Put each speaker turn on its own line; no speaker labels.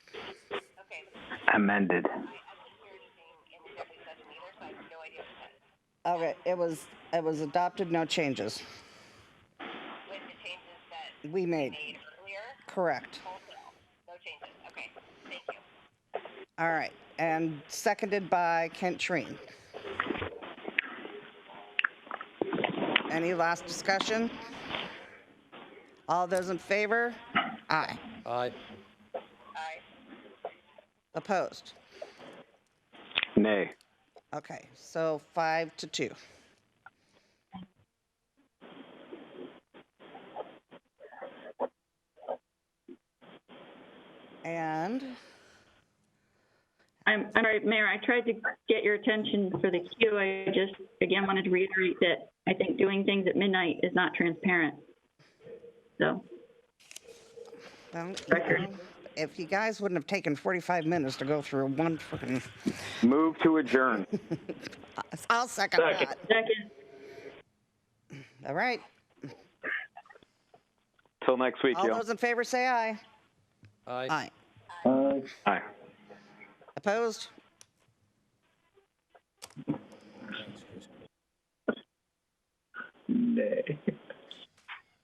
amended.
Okay, it was, it was adopted, no changes.
with the changes that
We made,
made earlier,
correct.
wholesale, no changes, okay, thank you.
All right, and seconded by Kent Treen. Any last discussion? All those in favor? Aye.
Aye.
Aye.
Opposed?
Nay.
Okay, so five to two. And,
I'm, I'm sorry, Mayor, I tried to get your attention for the queue. I just, again, wanted to reiterate that I think doing things at midnight is not transparent. So,
well, you know, if you guys wouldn't have taken 45 minutes to go through one freaking,
Move to adjourn.
I'll second that.
second,
All right,
Till next week,
all
y'all.
those in favor say aye.
Aye.
Aye.
Aye.
Opposed?
Nay.